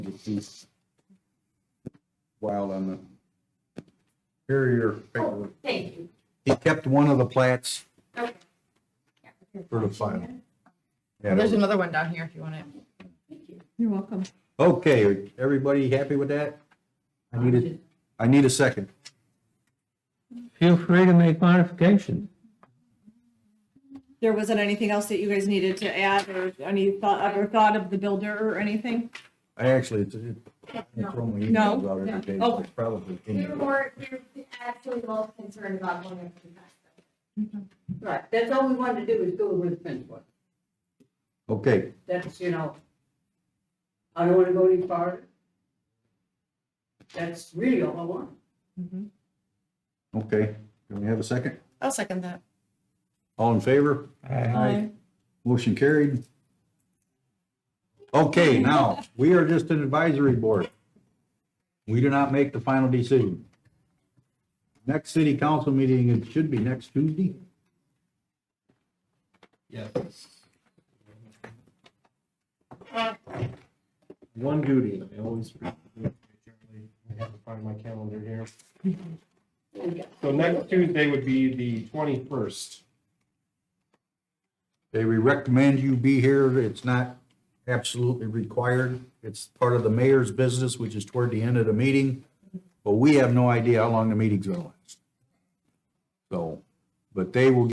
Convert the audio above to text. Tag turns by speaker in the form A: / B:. A: since while on the, here are your paperwork.
B: Thank you.
A: He kept one of the plats
B: Okay.
A: for the file.
C: Well, There's another one down here if you want it.
B: Thank you.
C: You're welcome.
A: Okay, everybody happy with that? I need a, I need a second.
D: Feel free to make modifications.
C: There wasn't anything else that you guys needed to add or any thought, other thought of the builder or anything?
A: I actually, it's, it- it's only emails out every day, so it's probably. in
B: We were
A: there.
B: more, we were actually most concerned about one of the best. Right, that's all we wanted to do is go with the fence one.
A: Okay,
B: That's, you know, I don't want to go any farther. That's really all I want.
A: okay, can we have a second?
C: I'll second that.
A: All in favor? Motion carried. Okay, now, we are just an advisory board. We do not make the final decision. Next city council meeting, it should be next Tuesday.
E: Yes.
F: One duty, I always, I have to find my calendar here. So next Tuesday would be the twenty-first.
A: They we recommend you be here. It's not absolutely required. It's part of the mayor's business, which is toward the end of the meeting. But we have no idea how long the meeting's gonna last. So, but they will